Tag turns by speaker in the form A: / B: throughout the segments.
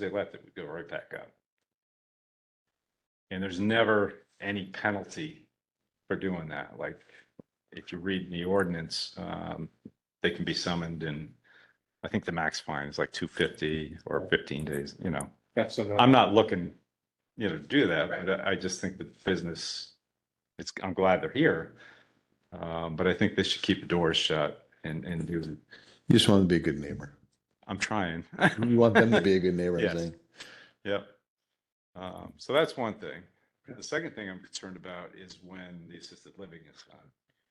A: they left, it would go right back up. And there's never any penalty for doing that. Like, if you read the ordinance, um, they can be summoned and I think the max fine is like two fifty or fifteen days, you know.
B: That's another.
A: I'm not looking, you know, to do that, but I I just think the business, it's, I'm glad they're here. Um, but I think they should keep the doors shut and, and do,
C: You just want them to be a good neighbor.
A: I'm trying.
C: You want them to be a good neighbor, I
A: Yes.
C: think.
A: Yep. Um, so that's one thing. The second thing I'm concerned about is when the assisted living is done.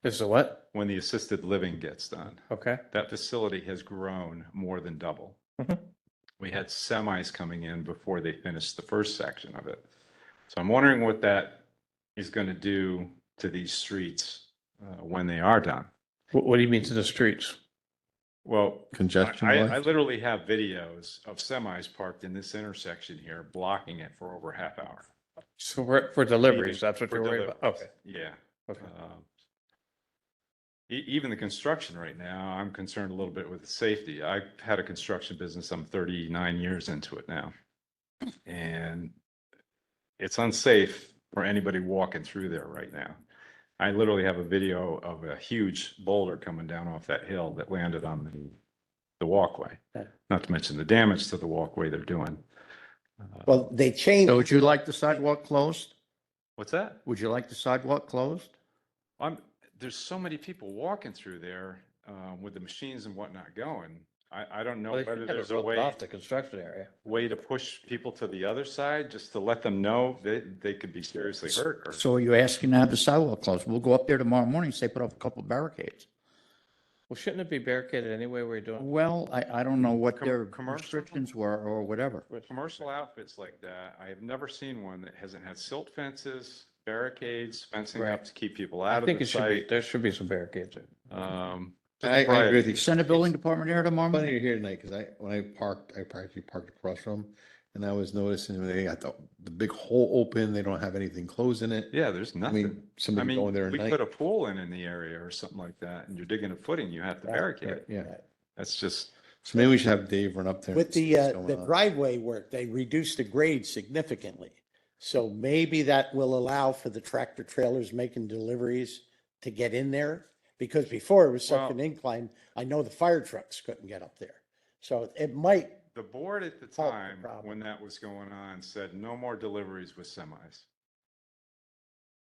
B: Is the what?
A: When the assisted living gets done,
B: Okay.
A: that facility has grown more than double.
B: Mhm.
A: We had semis coming in before they finished the first section of it. So I'm wondering what that is going to do to these streets uh, when they are done.
B: What, what do you mean to the streets?
A: Well, I,
C: Congestion
A: I- I
C: wise,
A: literally have videos of semis parked in this intersection here, blocking it for over a half hour.
B: So for, for deliveries, that's what
A: For
B: you're worried about? Okay.
A: deliveries, Yeah.
B: Okay.
A: Um, E- even the construction right now, I'm concerned a little bit with the safety. I've had a construction business. I'm thirty-nine years into it now. And it's unsafe for anybody walking through there right now. I literally have a video of a huge boulder coming down off that hill that landed on the, the walkway.
B: Okay.
A: Not to mention the damage to the walkway they're doing.
D: Well, they changed.
E: So would you like the sidewalk closed?
A: What's that?
E: Would you like the sidewalk closed?
A: I'm, there's so many people walking through there, um, with the machines and whatnot going. I, I don't know
B: Well, they
A: whether
B: should have it
A: there's a
B: roped
A: way,
B: Off the construction area.
A: way to push people to the other side, just to let them know they, they could be seriously hurt or.
E: So you're asking to have the sidewalk closed? We'll go up there tomorrow morning, say put up a couple barricades.
B: Well, shouldn't it be barricaded anyway where you're doing?
E: Well, I, I don't know what
A: Com-
E: their
A: commercial?
E: restrictions were or whatever.
A: Commercial outfits like that, I have never seen one that hasn't had silt fences, barricades, fencing up
B: Right.
A: to keep people out
B: I
A: of
B: think
A: the
B: it should be,
A: site.
B: there should be some barricades. there.
A: Um,
C: I, I agree with you.
E: Send a building department here tomorrow
C: Funny
E: morning?
C: you're here tonight, because I, when I parked, I practically parked across from, 'em, and I was noticing when they got the, the big hole open, they don't have anything closed in it.
A: yeah, there's
C: I
A: nothing.
C: mean,
A: I
C: somebody
A: mean,
C: going there at
A: we put
C: night.
A: a pool in in the area or something like that, and you're digging a footing, you have to
B: Right,
A: barricade
B: right.
A: it.
C: Yeah,
A: That's just,
C: so maybe we should have Dave run up there. and
D: Uh, With
C: see
D: the,
C: what's
D: uh,
C: going
D: the
C: on.
D: driveway work, they reduced the grade significantly. So maybe that will allow for the tractor trailers making deliveries to get in there. Because before it was such
A: Well-
D: an incline, I know the fire trucks couldn't get up there. So it might,
A: The board at the
D: Oh, no
A: time,
D: problem.
A: when that was going on, said no more deliveries with semis.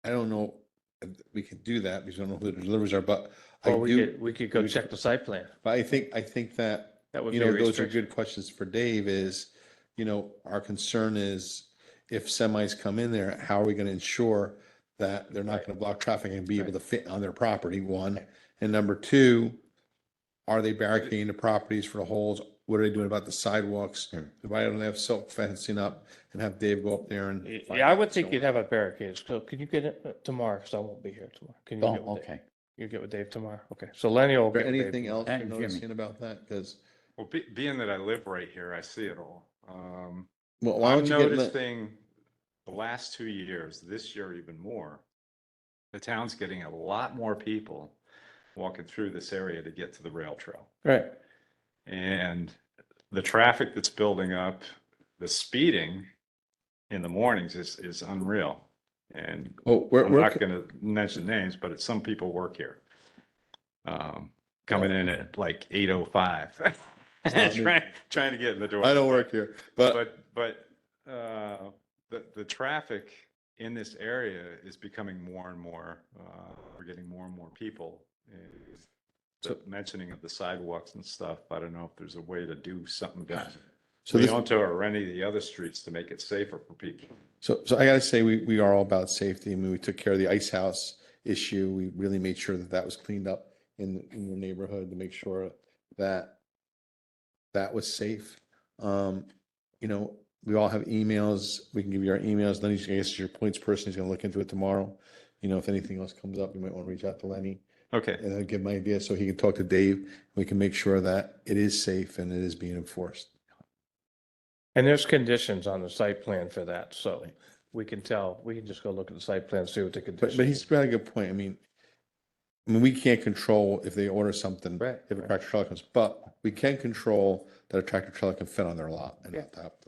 C: I don't know, if we can do that, because I don't know who the delivers are, but I
B: Or we
C: do,
B: could, we could go check the site plan.
C: but I think, I think that
B: That would be
C: you
B: a
C: know, those are
B: restriction.
C: good questions for Dave is, you know, our concern is if semis come in there, how are we going to ensure that they're not
B: Right.
C: going to block traffic and be able
B: Right.
C: to fit on their property, one? And number two, are they barricading the properties for the holes? What are they doing about the sidewalks?
B: Hmm.
C: If I don't have silk fencing up and have Dave go up there and. find
B: Yeah, I would
C: out what's
B: think
C: going
B: you'd have a barricade. So can you get it uh, tomorrow? Cause I won't be here tomorrow. Can you get
E: Oh,
B: with Dave?
E: okay.
B: You get with Dave tomorrow. Okay. So Lenny will
C: on.
B: get
C: Is
B: with
C: there
B: Dave.
C: anything else you're
E: And Jimmy.
C: noticing about that? Because,
A: Well, be, being that I live right here, I see it all. Um,
C: well, why
A: I'm
C: don't you get, Le-
A: noticing the last two years, this year even more, the town's getting a lot more people walking through this area to get to the rail trail.
B: Right.
A: And the traffic that's building up, the speeding in the mornings is, is unreal. And
C: oh, where,
A: I'm
C: where,
A: not gonna mention names, but it's some people work here. Um, coming in at like eight oh five.
C: not me.
A: Trying, trying to get in the door.
C: I don't work here, but
A: But, but, uh, the, the traffic in this area is becoming more and more, uh, we're getting more and more people. And The mentioning of the sidewalks and stuff, I don't know if there's a way to do something about it.
C: so this.
A: Leonto or any of the other streets to make it safer for people.
C: So, so I gotta say, we, we are all about safety. I mean, we took care of the ice house issue. We really made sure that that was cleaned up in, in your neighborhood to make sure that that was safe. Um, you know, we all have emails. We can give you our emails. Lenny's, I guess, your points person. He's gonna look into it tomorrow. You know, if anything else comes up, you might want to reach out to Lenny
A: Okay.
C: and I'll give my ideas so he can talk to Dave. We can make sure that it is safe and it is being enforced.
B: And there's conditions on the site plan for that, so we can tell, we can just go look at the site plan, see what the
C: But,
B: conditions.
C: but he's got a good point. I mean, I mean, we can't control if they order something,
B: Right,
C: if a
B: right.
C: tractor trailer comes, but we can control that a tractor trailer can fit on their lot and
B: Yeah.
C: not have